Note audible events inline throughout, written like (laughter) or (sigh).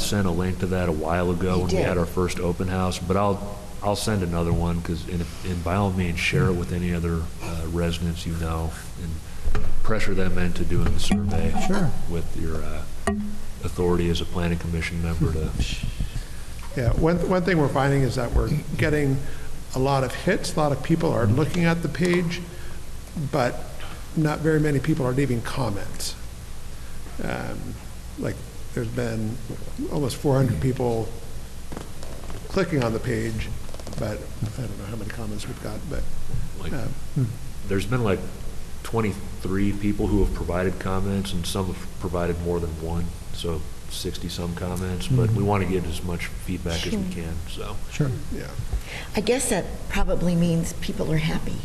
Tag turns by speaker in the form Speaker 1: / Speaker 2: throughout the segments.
Speaker 1: sent a link to that a while ago
Speaker 2: You
Speaker 1: when we
Speaker 2: did.
Speaker 1: had our first open house, but I'll, I'll send another one, because, and if- and by all means, share it with any other uh, residents you know, and pressure them into doing the survey.
Speaker 3: Sure.
Speaker 1: With your uh, authority as a planning commission member to,
Speaker 3: Yeah, one, one thing we're finding is that we're getting a lot of hits, a lot of people are looking at the page, but not very many people are leaving comments. Um, Like, there's been almost 400 people clicking on the page, but I don't know how many comments we've got, but,
Speaker 1: like,
Speaker 3: uh,
Speaker 1: there's been like 23 people who have provided comments, and some have provided more than one, so 60-some comments, but we want to get as much feedback as we can, so.
Speaker 4: Sure.
Speaker 3: yeah.
Speaker 2: I guess that probably means people are happy,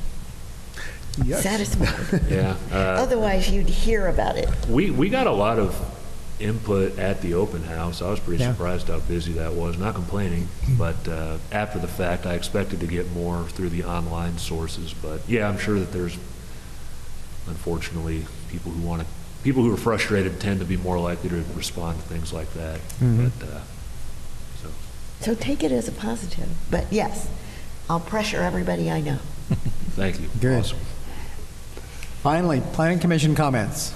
Speaker 3: Yes.
Speaker 2: satisfied.
Speaker 1: Yeah. (laughs) uh,
Speaker 2: Otherwise, you'd hear about it.
Speaker 1: We, we got a lot of input at the open house. I was pretty
Speaker 4: Yeah. Hmm.
Speaker 1: surprised how busy that was, not complaining, but uh, after the fact, I expected to get more through the online sources, but yeah, I'm sure that there's, unfortunately, people who want to, people who are frustrated tend to be more likely to respond to things like that.
Speaker 4: Mhm.
Speaker 1: But, uh, so,
Speaker 2: So take it as a positive. But yes, I'll pressure everybody I know.
Speaker 1: thank you.
Speaker 4: Good.
Speaker 1: Awesome.
Speaker 4: Finally, planning commission comments.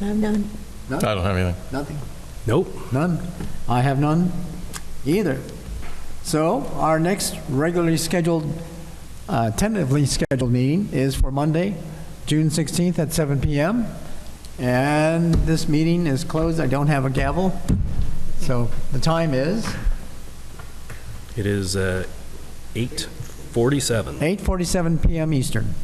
Speaker 2: I'm done.
Speaker 5: I don't have anything.
Speaker 4: Nothing.
Speaker 1: Nope.
Speaker 4: None. I have none either. So our next regularly scheduled, uh, tentatively scheduled meeting is for Monday, June 16th at 7 PM. And this meeting is closed. I don't have a gavel. So the time is
Speaker 6: It is uh, 8:47.
Speaker 4: 8:47 PM Eastern.